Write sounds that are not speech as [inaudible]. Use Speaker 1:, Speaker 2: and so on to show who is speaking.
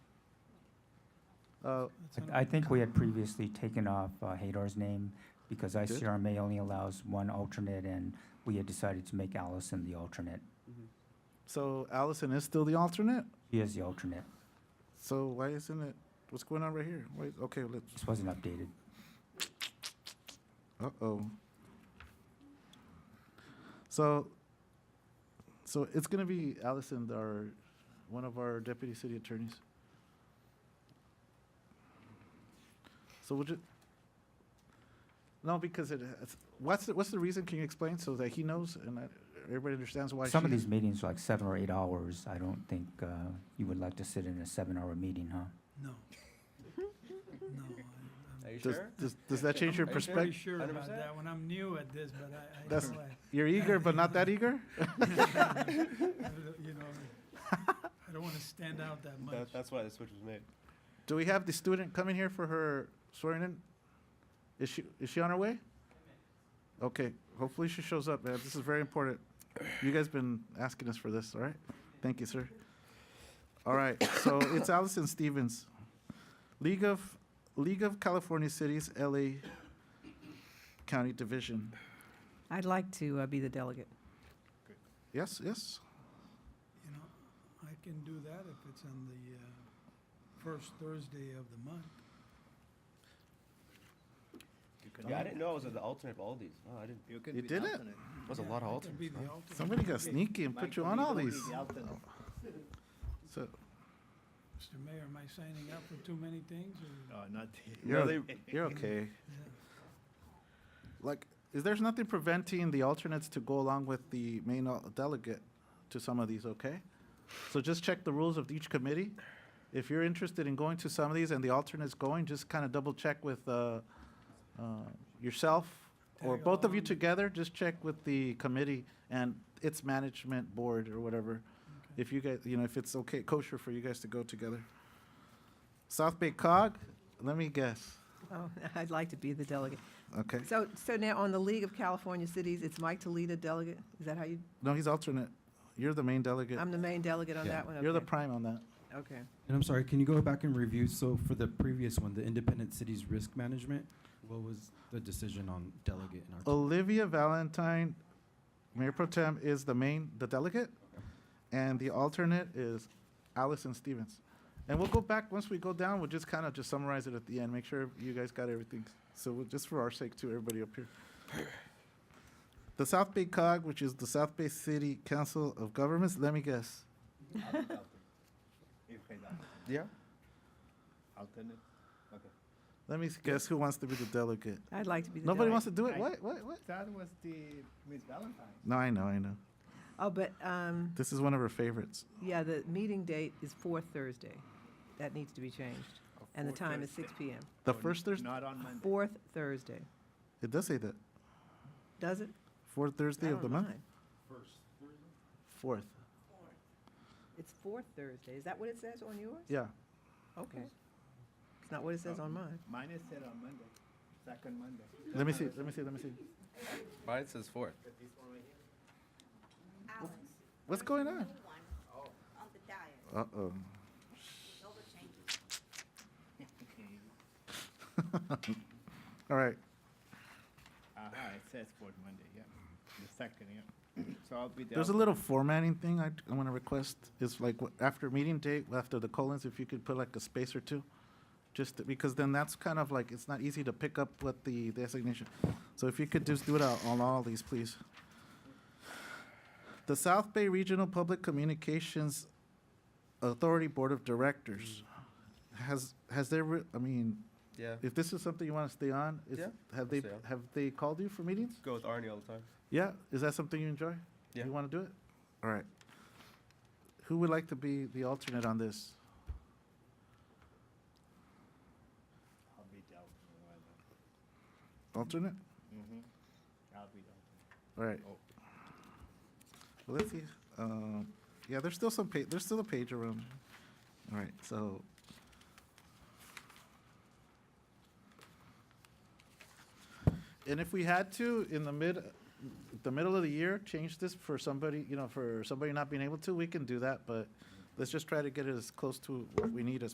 Speaker 1: Uh,
Speaker 2: I- I think we had previously taken off uh, Hadar's name because
Speaker 1: did?
Speaker 2: ICRMA only allows one alternate, and we had decided to make Allison the alternate.
Speaker 3: Mm-hmm.
Speaker 1: So Allison is still the alternate?
Speaker 2: She is the alternate.
Speaker 1: So why isn't it, what's going on right here? Wait, okay, let's,
Speaker 2: This wasn't updated.
Speaker 1: uh-oh. So, so it's gonna be Allison, our, one of our deputy city attorneys. So would you, no, because it, has- what's, the- what's the reason? Can you explain so that he knows and that everybody understands why she?
Speaker 2: Some of these meetings are like seven or eight hours. I don't think uh, you would like to sit in a seven-hour meeting, huh?
Speaker 4: No. [laughs] No. I-
Speaker 3: Are you
Speaker 1: Does,
Speaker 3: sure?
Speaker 1: does, does
Speaker 2: [laughs]
Speaker 1: that change your
Speaker 3: Are you
Speaker 4: I'm pretty
Speaker 1: perspective?
Speaker 4: sure about
Speaker 3: 100%?
Speaker 4: that one. I'm new at this, but I, I
Speaker 1: That's- [laughs]
Speaker 4: know I-
Speaker 1: You're eager, but not that eager?
Speaker 4: [laughs]
Speaker 2: [laughs]
Speaker 4: you know, I don't want to stand out that much.
Speaker 3: That, that's why the switch was made.
Speaker 1: Do we have the student coming here for her swearing in? Is she, is she on her way? Okay, hopefully she shows up, man. This is very important. You guys been asking us for this, all right? Thank you, sir. All right, so [coughs] it's Allison Stevens. League of, League of California Cities, LA County Division.
Speaker 5: I'd like to uh, be the delegate.
Speaker 1: Yes, yes?
Speaker 4: You know, I can do that if it's on the uh, first Thursday of the month.
Speaker 3: Yeah, I didn't know I was the alternate of all these. Oh, I didn't.
Speaker 6: You can
Speaker 1: You
Speaker 6: be
Speaker 1: did
Speaker 6: the
Speaker 1: it?
Speaker 6: alternate.
Speaker 3: That's a
Speaker 4: Yeah,
Speaker 3: lot of
Speaker 4: I can be
Speaker 3: alternates.
Speaker 4: the
Speaker 3: huh?
Speaker 4: alternate.
Speaker 1: Somebody got sneaky and put
Speaker 6: Mike
Speaker 1: you
Speaker 6: will
Speaker 1: on
Speaker 6: be the
Speaker 1: all
Speaker 6: one
Speaker 1: these.
Speaker 6: who's the alternate.
Speaker 1: So,
Speaker 4: Mr. Mayor, am I signing up for too many things
Speaker 1: Oh,
Speaker 4: or?
Speaker 6: No, not.
Speaker 1: you're, you're okay. like is there's nothing preventing the alternates to go along with the main al- delegate to some of these okay so just check the rules of each committee if you're interested in going to some of these and the alternates going just kind of double check with uh, uh, yourself or
Speaker 4: Tag
Speaker 1: both of you
Speaker 4: along.
Speaker 1: together just check with the committee and its management board or whatever
Speaker 4: Okay.
Speaker 1: if you guys you know if it's okay kosher for you guys to go together south bay cog let me guess
Speaker 5: Oh, [laughs] I'd like to be the delegate.
Speaker 1: okay
Speaker 5: So, so now on the League of California Cities, it's Mike Toledo delegate? Is that how you,
Speaker 1: no he's alternate you're the main delegate
Speaker 5: I'm the main delegate on
Speaker 7: Yeah.
Speaker 5: that one?
Speaker 1: You're the
Speaker 5: okay.
Speaker 1: prime on that.
Speaker 5: Okay.
Speaker 7: And I'm sorry, can you go back and review? So for the previous one, the Independent Cities Risk Management, what was the decision on delegate in our?
Speaker 1: Olivia Valentine, Mayor Pro Tem is the main, the delegate, and the alternate is Allison Stevens. And we'll go back, once we go down, we'll just kind of just summarize it at the end, make sure you guys got everything. So we'll- just for our sake too, everybody up here. The South Bay COG, which is the South Bay City Council of Governments, let me
Speaker 6: [laughs]
Speaker 1: guess.
Speaker 6: You can, uh,
Speaker 1: Yeah.
Speaker 6: Alternate. Okay.
Speaker 1: Let me guess who wants to be the delegate.
Speaker 5: I'd like to be the delegate.
Speaker 1: Nobody wants to do it?
Speaker 6: I-
Speaker 1: What, what, what?
Speaker 6: That was the Miss Valentine.
Speaker 1: No, I know, I know.
Speaker 5: Oh, but, um,
Speaker 1: This is one of her favorites.
Speaker 5: yeah, the meeting date is fourth Thursday. That needs to be changed.
Speaker 1: Oh,
Speaker 5: And the
Speaker 6: fourth
Speaker 5: time is
Speaker 6: Thursday.
Speaker 5: six PM.
Speaker 1: The
Speaker 6: Oh, n-
Speaker 1: first Thursday,
Speaker 6: Not on Monday.
Speaker 5: Fourth Thursday.
Speaker 1: it does say that.
Speaker 5: Does it?
Speaker 1: Fourth
Speaker 5: I
Speaker 1: Thursday of
Speaker 5: don't
Speaker 1: the month?
Speaker 5: mind.
Speaker 1: Fourth.
Speaker 5: It's fourth Thursday. Is that what it says on yours?
Speaker 1: Yeah. Oh.
Speaker 5: Okay. It's not what it says on mine.
Speaker 6: Mine is set on Monday, second Monday.
Speaker 1: Let me see. Let me see. Let me see.
Speaker 3: Mine says fourth.
Speaker 8: Alex,
Speaker 1: What's going on?
Speaker 8: new one on the diet,
Speaker 1: Uh oh.
Speaker 8: no changes.
Speaker 1: All right.
Speaker 6: Uh-huh, it says for Monday, yeah. The second, yeah. [clears throat] So I'll be the.
Speaker 1: There's a little
Speaker 6: alternate.
Speaker 1: formatting thing I, I want to request. It's like wh- after meeting date, after the colons, if you could put like a space or two, just to- because then that's kind of like it's not easy to pick up what the designation. So if you could just do it on, on all these, please. The South Bay Regional Public Communications Authority Board of Directors has has there. Re- I mean,
Speaker 3: Yeah.
Speaker 1: If this is something you want to stay on, is,
Speaker 3: Yeah,
Speaker 1: have they,
Speaker 3: stay on.
Speaker 1: have they called you for meetings?
Speaker 3: Go with Arnie all the time.
Speaker 1: Yeah, is that something you enjoy?
Speaker 3: Yeah.
Speaker 1: You want to do it? All right. Who would like to be the alternate on this?
Speaker 6: I'll be the alternate.
Speaker 1: Alternate?
Speaker 6: Mm-hmm. I'll be the alternate.
Speaker 1: All right.
Speaker 6: Oh.
Speaker 1: Well, let's see. Um, yeah, there's still some pa, there's still a page around. All right, so. And if we had to, in the mid, the middle of the year, change this for somebody, you know, for somebody not being able to, we can do that, but let's just try to get it as close to what we need as